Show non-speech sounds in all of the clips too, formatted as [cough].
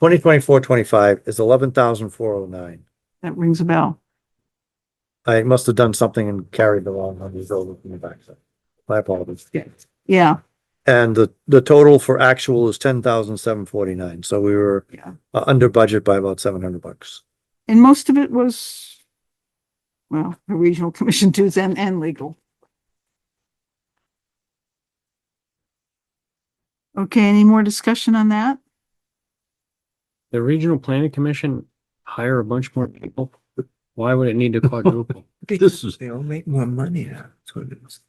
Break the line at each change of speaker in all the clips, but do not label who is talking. Twenty twenty-four, twenty-five is eleven thousand four oh nine.
That rings a bell.
I must have done something and carried along on these over from the backside. My apologies.
Yeah,
And the, the total for actual is ten thousand seven forty-nine, so we were
Yeah.
uh, under budget by about seven hundred bucks.
and most of it was, well, the regional [laughs] commission dues and, and legal. Okay, any more discussion on that?
The Regional Planning Commission hire a bunch more people? Why would it need to
[laughs]
quadruple?
This is. They all make more money now. That's what it is.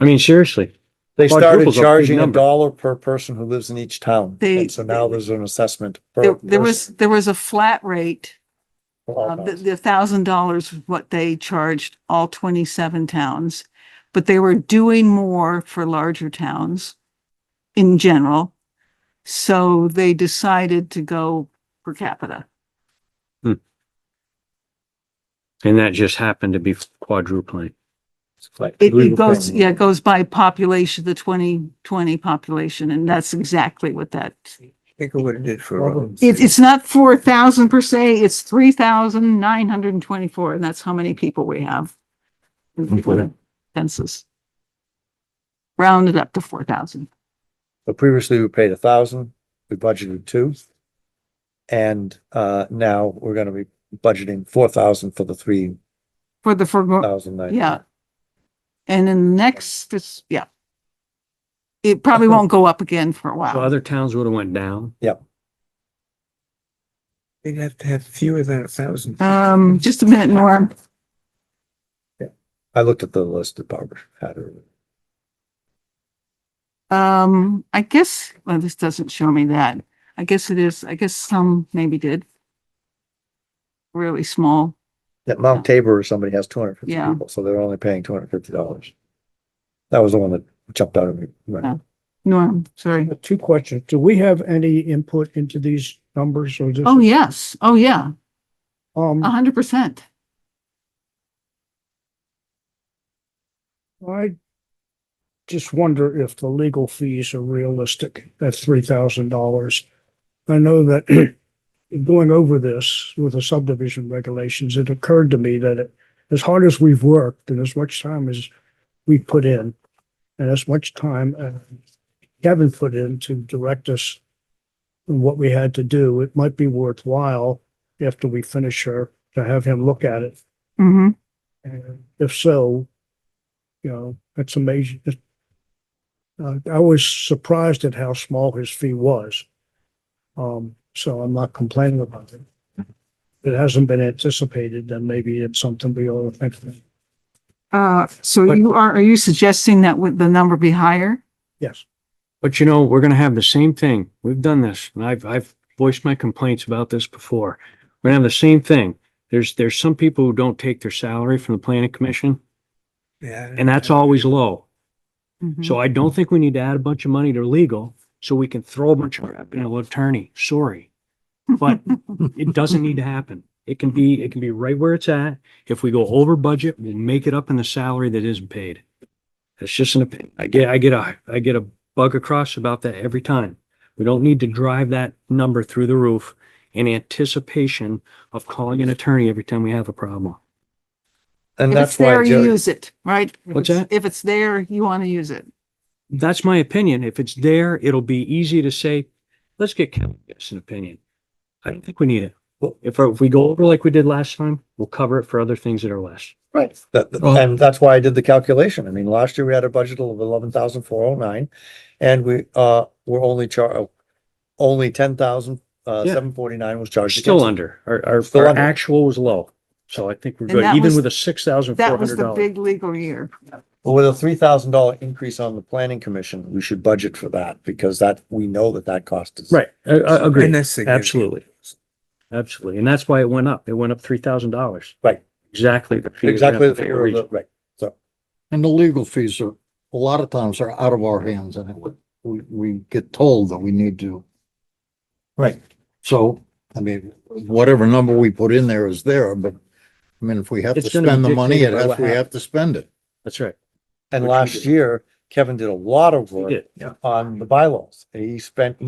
I mean, seriously,
They started
Quadruple's a big
charging a
number.
dollar per person who lives in each town,
They-
and so now there's an assessment. per
There, there was,
person
there was a flat rate.
for all
Uh, the,
towns.
the thousand dollars was what they charged all twenty-seven towns, but they were doing more for larger towns in general. So they decided to go per capita.
and that just happened to be quadrupling.
It's like
It,
legal
it goes,
thing.
yeah, it goes by population, the twenty twenty population, and that's exactly what that.
Think of what it did for. uh, Robin.
It, it's not four thousand per se, it's three thousand nine hundred and twenty-four, and that's how many people we have. in the
Okay.
Census. Rounded up to four thousand.
But previously we paid a thousand, we budgeted two. And uh now we're gonna be budgeting four thousand for the three
For the, for,
thousand nine.
yeah. And then next, this, yeah. It probably won't go up again for a
So
while.
other towns would have went down.
They'd have to have fewer than a thousand.
Um, just a minute, Norm.
I looked at the list that Barbara had earlier.
Um, I guess, well, this doesn't show me that. I guess it is, I guess some maybe did. Really small.
At Mount Tabor, somebody has two hundred fifty
Yeah.
people, so they're only paying two hundred fifty dollars. That was the one that jumped out at me.
Yeah. Norm, sorry.
Two questions. Do we have any input into these numbers or just?
Oh, Uh-huh. yes. Oh, yeah. A
Um,
hundred percent.
I just wonder if the legal fees are realistic at three thousand dollars. I know that [clears throat] going over this with the subdivision regulations, it occurred to me that it- as hard as we've worked and as much time as we put in and as much time uh, Kevin put in to direct us and what we had to do, it might be worthwhile after we finish her to have him look at it
Mm-hmm.
And if so, you know, that's amazing. Uh, I was surprised at how small his fee was. Um, so I'm not complaining about it. If It hasn't been anticipated, then maybe it's something we ought to think about.
Uh, so
But-
you are, are you suggesting that would the number be higher?
Yes.
But you know, we're gonna have the same thing. We've done this and I've, I've voiced my complaints about this before. We're gonna have the same thing. There's, there's some people who don't take their salary from the planning commission
Yeah.
and that's always low.
Mhm.
So I don't think we need to add a bunch of money to legal so we can throw a bunch of crap at an attorney. Sorry. But it doesn't need to happen. It can be, it can be right where it's at. If we go over budget, we'll make it up in the salary that isn't paid. It's just an opinion. I get, I get a, I get a bug across about that every time. We don't need to drive that number through the roof in anticipation of calling an attorney every time we have a problem.
And
If it's
that's why
there, you
Jerry,
use it, right? If
What's
it's-
that?
If it's there, you want to use it.
That's my opinion. If it's there, it'll be easy to say, let's get Kevin to give us an opinion. I don't think we need it. Well, if, uh, if we go over like we did last time, we'll cover it for other things that are less.
right, that, that-
Well-
and that's why I did the calculation. I mean, last year we had a budget of eleven thousand four oh nine. And we uh were only char, only ten thousand uh
Yeah.
seven forty-nine was charged.
Still
against it.
under. Our, our,
Still
our
under.
actual was low. So I think we're
And
good,
that was-
even with a six thousand four
That was
hundred
the
dollars.
big legal year.
But with a three thousand dollar increase on the planning commission, we should budget for that because that, we know that that cost is.
Right, I, I agree.
And that's significant.
Absolutely. Absolutely. And that's why it went up. It went up three thousand dollars.
Right.
Exactly. the fee that we
Exactly,
have
the
to pay
figure of
region.
the- right.
And the legal fees are, a lot of times are out of our hands and it- we, we get told that we need to.
Right.
So, I mean, whatever number we put in there is there, but I mean, if we have to
It's gonna be
spend the money, it
dictated by
has,
what
we have
happens.
to spend it.
That's right.
And
Which we
last
did.
year, Kevin did a lot of
We
work
did.
on the bylaws. He spent